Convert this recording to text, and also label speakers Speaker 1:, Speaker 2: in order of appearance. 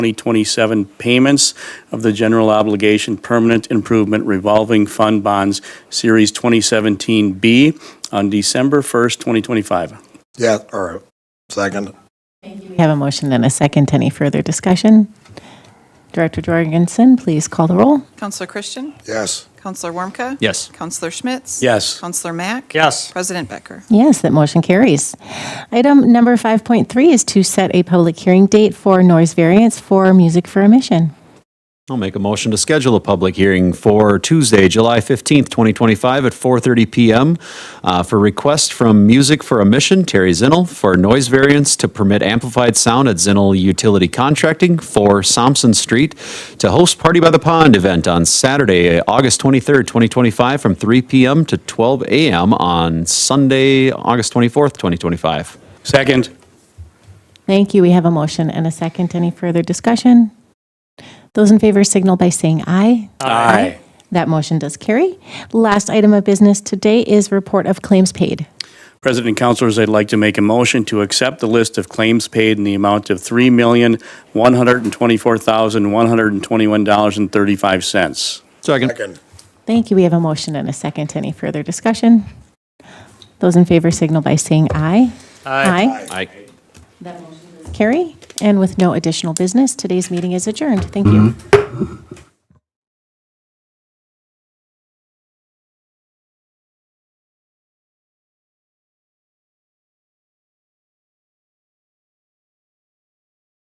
Speaker 1: 2027 payments of the General Obligation Permanent Improvement Revolving Fund Bonds, Series 2017B, on December 1st, 2025.
Speaker 2: Yeah, or second.
Speaker 3: We have a motion and a second. Any further discussion? Director Jorgensen, please call the roll.
Speaker 4: Counselor Christian?
Speaker 2: Yes.
Speaker 4: Counselor Warmka?
Speaker 5: Yes.
Speaker 4: Counselor Schmitz?
Speaker 1: Yes.
Speaker 4: Counselor Mack?
Speaker 5: Yes.
Speaker 4: President Becker?
Speaker 3: Yes, that motion carries. Item number 5.3 is to set a public hearing date for noise variance for music for emission.
Speaker 5: I'll make a motion to schedule a public hearing for Tuesday, July 15th, 2025 at 4:30 PM uh, for request from Music for a Mission, Terry Zinnel, for noise variance to permit amplified sound at Zinnel Utility Contracting for Sampson Street to host Party by the Pond event on Saturday, August 23rd, 2025, from 3 PM to 12 AM on Sunday, August 24th, 2025.
Speaker 1: Second.
Speaker 3: Thank you. We have a motion and a second. Any further discussion? Those in favor signal by saying aye.
Speaker 1: Aye.
Speaker 3: That motion does carry. Last item of business today is report of claims paid.
Speaker 1: President and Councilors, I'd like to make a motion to accept the list of claims paid in the amount of $3,124,121.35.
Speaker 5: Second.
Speaker 2: Second.
Speaker 3: Thank you. We have a motion and a second. Any further discussion? Those in favor signal by saying aye. Aye.
Speaker 5: Aye.
Speaker 3: Carrie, and with no additional business, today's meeting is adjourned. Thank you.